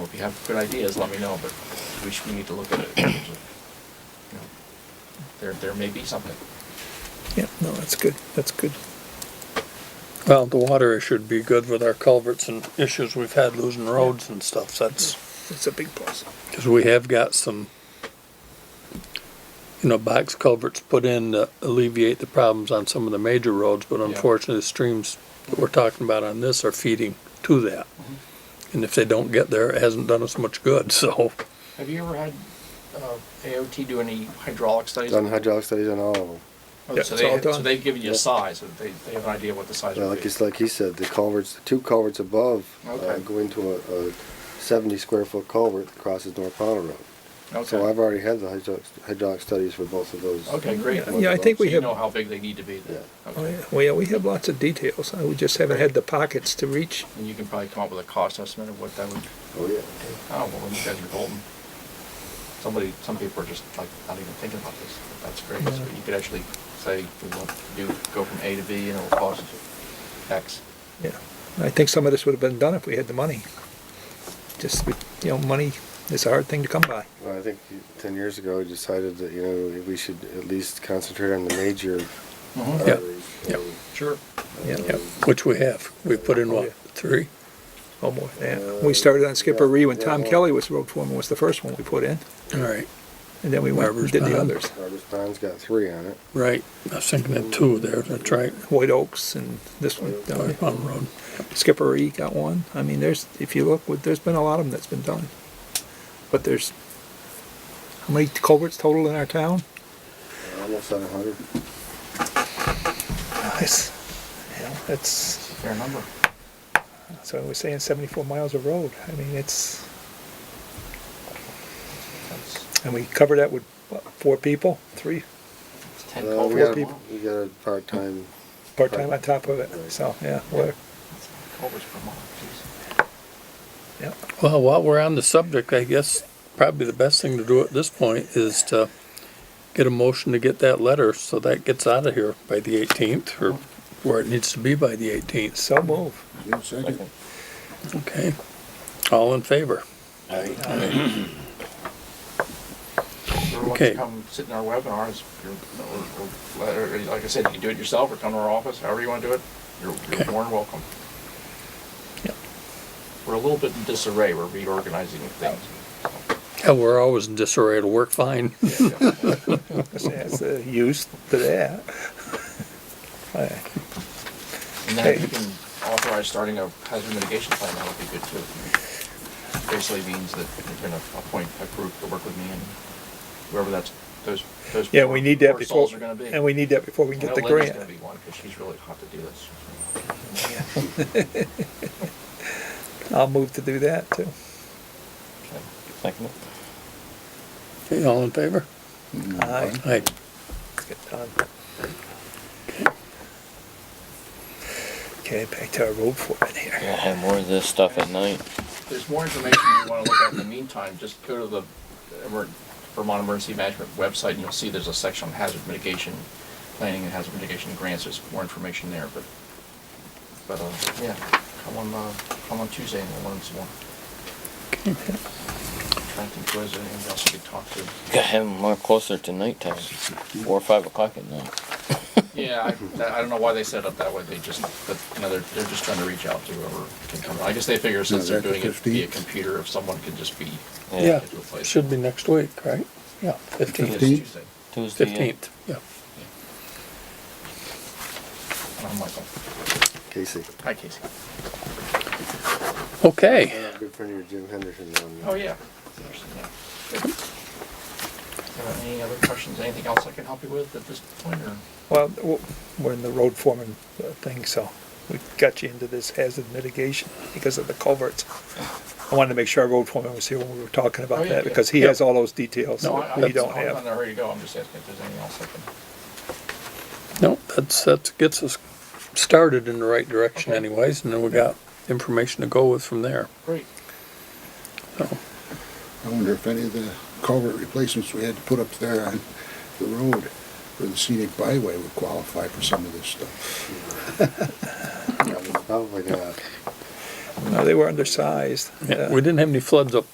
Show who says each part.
Speaker 1: have good ideas, let me know, but we should, we need to look at it. You know, There, there may be something.
Speaker 2: Yeah, no, that's good, that's good. Well, the water issue would be good with our culverts and issues we've had losing roads and stuff, that's,
Speaker 3: It's a big plus.
Speaker 2: cause we have got some, you know, box culverts put in to alleviate the problems on some of the major roads, but unfortunately, the streams that we're talking about on this are feeding to that. And if they don't get there, it hasn't done us much good, so,
Speaker 1: Have you ever had, uh, AOT do any hydraulic studies?
Speaker 4: Done hydraulic studies on all of them.
Speaker 1: Oh,
Speaker 2: Yeah,
Speaker 1: So
Speaker 2: it's
Speaker 1: they,
Speaker 2: all
Speaker 1: so
Speaker 2: done.
Speaker 1: they've given you a
Speaker 4: Yeah.
Speaker 1: size, so they, they have an idea what the size
Speaker 4: Yeah,
Speaker 1: would
Speaker 4: Uh, like
Speaker 1: be.
Speaker 4: it's like he said, the culverts, the two culverts above uh,
Speaker 1: Okay.
Speaker 4: go into a, a seventy square foot culvert that crosses North Powder Road. So
Speaker 1: Okay,
Speaker 4: I've already had the hydraulic, hydrauc studies for both of those.
Speaker 1: okay, great.
Speaker 4: Yeah,
Speaker 1: So
Speaker 4: yeah,
Speaker 3: Yeah, I think we
Speaker 1: you
Speaker 3: have,
Speaker 1: know
Speaker 3: oh
Speaker 1: how big they need to be then. Okay.
Speaker 3: yeah, well, yeah, we have lots of details. I- We just haven't had the pockets to reach.
Speaker 1: And you can probably come up with a cost estimate of what that would,
Speaker 4: Oh, yeah.
Speaker 1: oh, well, you guys are golden. Somebody, some people are just like not even thinking about this, but that's great. So you could actually say, we want to do, go from A to B and it'll cost X.
Speaker 3: Yeah, I think some of this would have been done if we had the money. Just, we- you know, money is a hard thing to come by.
Speaker 4: Well, I think ten years ago, I decided that, you know, we should at least concentrate on the major
Speaker 2: Yeah,
Speaker 4: arteries.
Speaker 2: yeah.
Speaker 4: and,
Speaker 1: Sure.
Speaker 3: Yeah,
Speaker 4: um,
Speaker 3: yeah.
Speaker 2: which we have. We put in what, three?
Speaker 3: Oh, boy, yeah. We started on Skipper Ree when Tom
Speaker 4: Yeah.
Speaker 3: Kelly was road foreman, was the first one we put in.
Speaker 2: All right,
Speaker 3: And then we went and did the
Speaker 2: Barber's Pond.
Speaker 3: others.
Speaker 4: Robert's Pond's got three on it.
Speaker 2: right, I was thinking of two there, that's right,
Speaker 3: White Oaks and this one, uh,
Speaker 2: North Palm Road.
Speaker 3: Skipper E got one. I mean, there's, if you look, there's been a lot of them that's been done. But there's, how many culverts total in our town?
Speaker 4: Uh, Almost at a hundred.
Speaker 3: Nice. Yeah, that's,
Speaker 1: Fair number.
Speaker 3: so I was saying seventy-four miles of road. I mean, it's,
Speaker 1: That's
Speaker 3: and we cover that with, what, four people, three
Speaker 1: it's ten
Speaker 4: Uh, we
Speaker 1: culverts.
Speaker 4: got,
Speaker 1: a
Speaker 4: a-
Speaker 1: month.
Speaker 4: we got a part-time,
Speaker 3: part-time on top of it. So, yeah, we're,
Speaker 1: That's Culverts per month,
Speaker 3: yeah.
Speaker 2: Well, while we're on the subject, I guess probably the best thing to do at this point is to get a motion to get that letter, so that gets out of here by the eighteenth, or where it needs to be by the eighteenth.
Speaker 3: So move.
Speaker 1: jeez.
Speaker 2: Okay, all in favor?
Speaker 1: Everyone wants to
Speaker 2: Okay.
Speaker 1: come sit in our webinar, it's your, or- or- or, like I said, you can do it yourself or come to our office, however you want to do it. You're, you're
Speaker 2: Okay.
Speaker 1: more than welcome.
Speaker 2: Yep.
Speaker 1: We're a little bit in disarray, we're reorganizing things.
Speaker 2: Yeah, we're always in disarray, it'll work fine.
Speaker 3: That's the use to that. Yeah.
Speaker 1: And then if you can authorize starting a hazard mitigation plan, that would be good too. Basically means that you're gonna appoint a group to work with me and whoever that's, those, those.
Speaker 3: Yeah, we need that
Speaker 1: poor
Speaker 3: before,
Speaker 1: souls are gonna be.
Speaker 3: and we need that before we
Speaker 1: I
Speaker 3: can get
Speaker 1: know
Speaker 3: the
Speaker 1: Linda's
Speaker 3: grant.
Speaker 1: gonna be one, 'cause she's really hot to do this.
Speaker 3: I'll move to do that too.
Speaker 1: Okay.
Speaker 2: Okay, all in favor?
Speaker 3: Aye.
Speaker 2: Aye.
Speaker 3: Let's get done. Okay, back to our road foreman here.
Speaker 5: Gonna have more of this stuff at night.
Speaker 1: there's more information you want to look at in the meantime, just go to the Emer- Vermont Emergency Management website, and you'll see there's a section on hazard mitigation, planning and hazard mitigation grants, there's more information there, but, but, uh, yeah, come on, uh, come on Tuesday and we'll learn some more. Trying to think, if there's anything else we could talk to?
Speaker 5: Gotta have them more closer to nighttime, four or five o'clock at night.
Speaker 1: Yeah, I, I don't know why they set it up that way, they just, but, you know, they're, they're just trying to reach out to whoever can come, I guess they figure since they're doing it via computer, if someone can just be.
Speaker 2: Yeah,
Speaker 1: get to a place.
Speaker 2: should be next week, right? Yeah,
Speaker 1: It's
Speaker 2: fifteenth,
Speaker 1: Tuesday,
Speaker 5: Tuesday. yeah.
Speaker 2: fifteenth, yeah.
Speaker 1: and I'm Michael,
Speaker 4: Casey.
Speaker 1: hi Casey.
Speaker 2: Okay.
Speaker 4: Uh, Good friend of your Jim Henderson down there.
Speaker 1: Oh, yeah. Yeah. Good. Uh, Any other questions, anything else I can help you with at this point, or?
Speaker 3: Well, w- we're in the road foreman uh, thing, so we got you into this hazard mitigation because of the culverts. I wanted to make sure our road foreman was here when we were talking
Speaker 1: Oh,
Speaker 3: about
Speaker 1: yeah,
Speaker 3: that
Speaker 1: yeah.
Speaker 3: because he has all those details
Speaker 1: No,
Speaker 3: that
Speaker 1: I-
Speaker 3: we don't
Speaker 1: I'm
Speaker 3: have.
Speaker 1: not ready to go, I'm just asking if there's anything else I can.
Speaker 2: No, that's, that gets us started in the right direction
Speaker 1: Okay.
Speaker 2: anyways, and then we got information to go with from there.
Speaker 1: Great.
Speaker 2: So,
Speaker 6: I wonder if any of the culvert replacements we had to put up there on the road or the scenic byway would qualify for some of this stuff.
Speaker 4: Probably not.
Speaker 3: No, they were Uh, undersized.
Speaker 2: yeah,
Speaker 3: Yeah.
Speaker 2: we didn't have any floods up